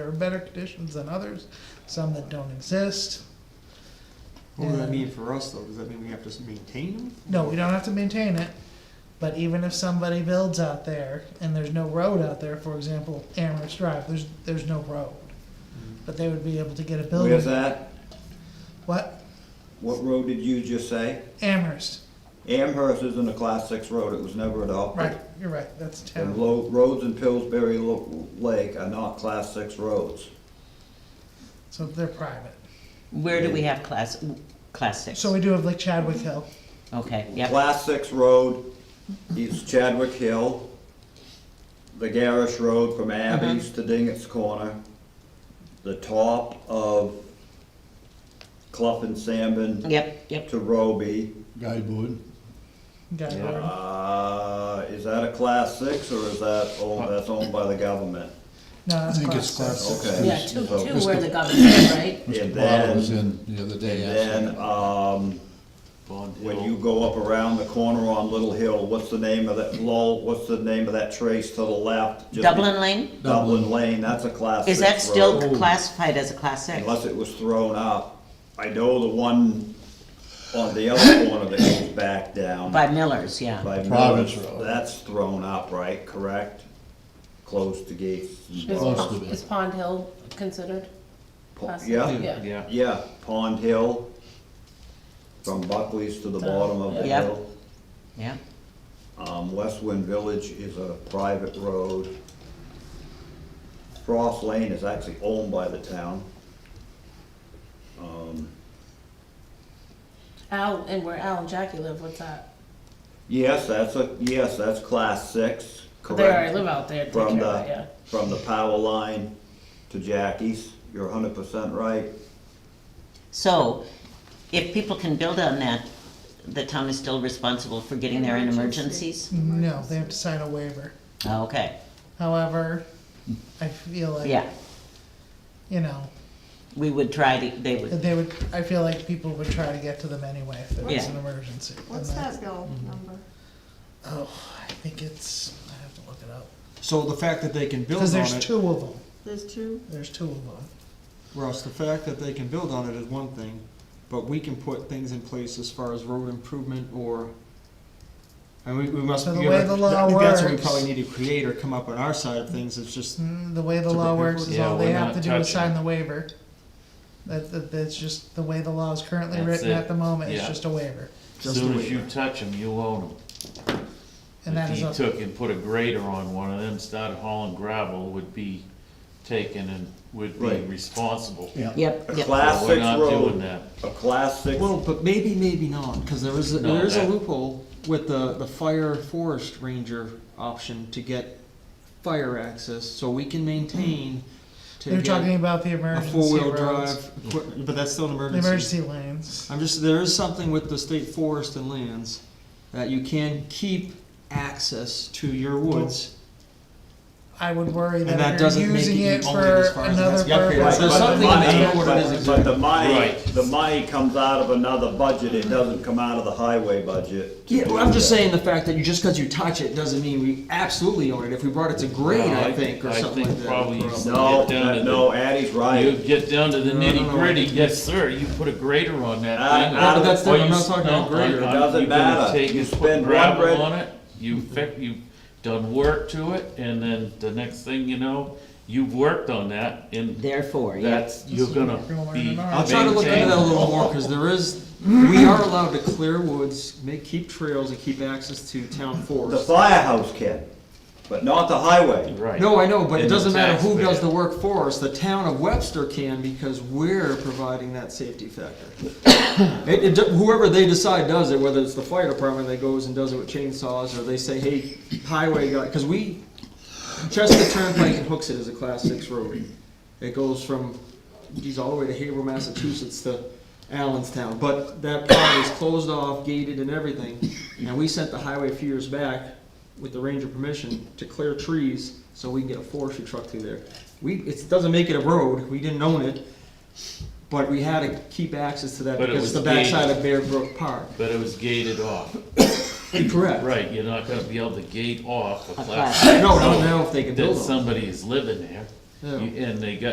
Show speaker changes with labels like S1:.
S1: are better conditions than others, some that don't exist.
S2: What does that
S1: And-
S2: mean for us, though? Does that mean we have to s- maintain them?
S1: No, we don't have to maintain it. But even if somebody builds out there and there's no road out there, for example, Amherst Drive, there's there's no road. But they would be able Mm-hmm. to get a building.
S3: Where's that?
S1: What?
S3: What road did you just say?
S1: Amherst.
S3: Amherst isn't a class six road, it was never adopted.
S1: Right, you're right, that's a
S3: And
S1: town.
S3: lo- roads in Pillsbury Lo- Lake are not class six roads.
S1: So they're private.
S4: Where do we have class, class six?
S1: So we do have like Chadwick Hill.
S4: Okay, yep,
S3: Class six road is Chadwick Hill, the Garrish Road from
S1: Uh-huh.
S3: Abby's to Dingett's Corner, the top of Clough and Sandman
S4: yep, yep.
S3: to Roby.
S5: Guide board.
S1: Got it.
S3: Uh, is that a class six or is that, oh, that's owned by the government?
S1: No, that's
S5: I think
S1: class
S5: it's class
S1: six.
S3: Okay.
S6: Yeah, two,
S3: So-
S6: two were the government, right?
S3: And
S5: Mr.
S3: then-
S5: Bottle was in the other day,
S3: Then,
S5: actually.
S3: um, when you go up around the corner on Little Hill, what's the name of that, Lowell, what's the name of that trace to the left? Just-
S4: Dublin Lane,
S3: Dublin Lane, that's a class six
S4: is that still
S3: road,
S4: classified as a class six?
S3: Unless it was thrown up. I know the one on the other corner that goes back down.
S4: By Miller's, yeah.
S3: by
S5: Province
S3: Mills,
S5: Road.
S3: That's thrown up, right, correct? Close to gates. and
S6: Is
S5: Close
S6: Pon-
S5: to it.
S6: Is Pond Hill considered?
S3: po-
S6: class-
S3: Yeah,
S6: Yeah.
S7: Yeah,
S3: yeah, Pond Hill, from Buckley's to the
S6: Uh,
S3: bottom of the
S4: Yep.
S3: hill.
S4: Yeah,
S3: Um, Westwind Village is a private road. Frost Lane is actually owned by the town. Um,
S6: Al, and where Al and Jackie live, what's that?
S3: Yes, that's a, yes, that's class six,
S6: They already
S3: correct?
S6: live out there, take care
S3: From
S6: of that,
S3: the,
S6: yeah.
S3: from the power line to Jackie's, you're hundred percent right.
S4: so if people can build on that, the town is still responsible for getting there in emergencies?
S1: No, they have to sign a waiver.
S4: Okay,
S1: However, I feel like
S4: yeah,
S1: you know
S4: we would try to, they would,
S1: they would. I feel like people would try to get to them anyway if there was
S4: Yeah.
S1: an emergency.
S8: What's
S1: And that-
S8: that bill number?
S1: Oh, I think it's. I have to look it up
S2: So the fact that they can build
S1: because
S2: on
S1: there's
S2: it,
S1: two of them.
S8: There's two,
S1: There's two of them.
S2: Russ, the fact that they can build on it is one thing, but we can put things in place as far as road improvement or, and we, we must.
S1: So the
S2: we
S1: way
S2: have-
S1: the law
S2: I think That's what we
S1: works-
S2: probably need to create or come up on our side of things, it's just,
S1: Mm, The way the
S2: To
S1: law
S2: prepare
S1: works
S2: for
S1: is
S7: it.
S1: all
S7: Yeah,
S1: they
S7: we're
S1: have
S7: not
S1: to do is
S7: touching
S1: sign
S7: it.
S1: the waiver. That, that, that's just the way the law is currently
S7: That's
S1: written
S7: it.
S1: at the moment, it's
S7: Yeah.
S1: just a waiver.
S2: Just
S7: soon
S2: a
S7: as you
S2: waiver.
S7: touch them, you own them.
S1: And that is,
S7: If
S1: a-
S7: he took and put a grader on one of them, started hauling gravel, would be taken and would be
S3: Right.
S7: responsible.
S5: Yeah.
S4: yep,
S3: A
S4: yep.
S3: class
S7: Well, we're
S3: six
S7: not doing
S3: road,
S7: that.
S3: a class six,
S2: well, but maybe, maybe not, cause there is, a-
S7: No,
S2: there is a
S7: that-
S2: loophole with the, the fire forest ranger option to get fire access, so we can maintain to
S1: they're
S2: get
S1: talking about the
S2: a
S1: emergency
S2: four-wheel
S1: roads,
S2: drive, equip- but that's still an
S1: the emergency lanes.
S2: I'm just, there is something with the state forest and lands that you can keep access to your woods.
S1: I would worry
S2: And that
S1: that if
S2: doesn't
S1: you're
S2: make
S1: using
S2: it
S1: it
S2: only as
S1: for
S2: far as
S1: another
S2: that's- yeah, fair.
S1: purpose.
S2: So
S1: other
S2: something
S1: than-
S2: I
S3: Right,
S2: don't know
S3: but-
S2: what it is
S3: But the money,
S7: Right.
S3: the money comes out of another budget, it doesn't come out of the highway budget. to
S2: Yeah, well,
S3: do
S2: I'm just
S3: that.
S2: saying the fact that you, just because you touch it doesn't mean we absolutely own it. If we brought it to grade,
S7: No,
S2: I
S7: I-
S2: think, or
S7: I
S2: something
S7: think
S2: like that.
S7: probably you
S2: Probably.
S7: said-
S3: No,
S7: Get down
S3: that-
S7: to
S3: no, Addie's
S7: You
S3: right.
S7: get down to the
S2: No, no, no,
S7: nitty gritty,
S2: I think- Ah,
S7: yes, sir, you put a grader on that
S3: Uh,
S7: thing.
S3: uh, but
S2: that's
S7: or
S2: different.
S7: you
S2: I'm not talking
S7: s-
S2: about grader.
S7: no,
S2: It
S7: I'm-
S3: doesn't
S7: you're gonna
S3: matter.
S7: take
S3: You
S7: and put
S3: spend one
S7: gravel
S3: red-
S7: On it, you fix, you've done work to it, and then the next thing you know, you've worked on that, and
S4: Therefore, yeah,
S7: that's, you're gonna
S1: Everyone
S7: be
S1: learning tomorrow.
S2: I'll try to look into that a
S7: maintained.
S2: little more, because there is, we are allowed to clear woods, make, keep trails and keep access to town
S3: The
S2: forests.
S3: firehouse can, but not the highway.
S7: Right.
S2: No, I know, but it
S7: And the
S2: doesn't matter who does
S7: taxpayer.
S2: the work for us, the town of Webster can, because we're providing that safety factor. It, it, do- whoever they decide does it, whether it's the fire department that goes and does it with chainsaws, or they say, hey, highway guy, cause we, Chester Turnpike and Hooks it is a class six road. It goes from, geez, all the way to Haverhill, Massachusetts to Allenstown, but that part is closed off, gated and everything. And we sent the highway a few years back with the ranger permission to clear trees so we can get a forestry truck through there. We, it doesn't make it a road, we didn't own it, but we had to keep access to that
S7: But it
S2: because it's the
S7: was
S2: backside of Bear Brook Park.
S7: But it was gated off,
S2: Correct.
S7: right, you're not gonna be able to gate off a
S4: class
S7: class
S2: No, no, now if they can
S7: that
S2: build on it.
S7: somebody is living there,
S2: Yeah.
S7: you- and they got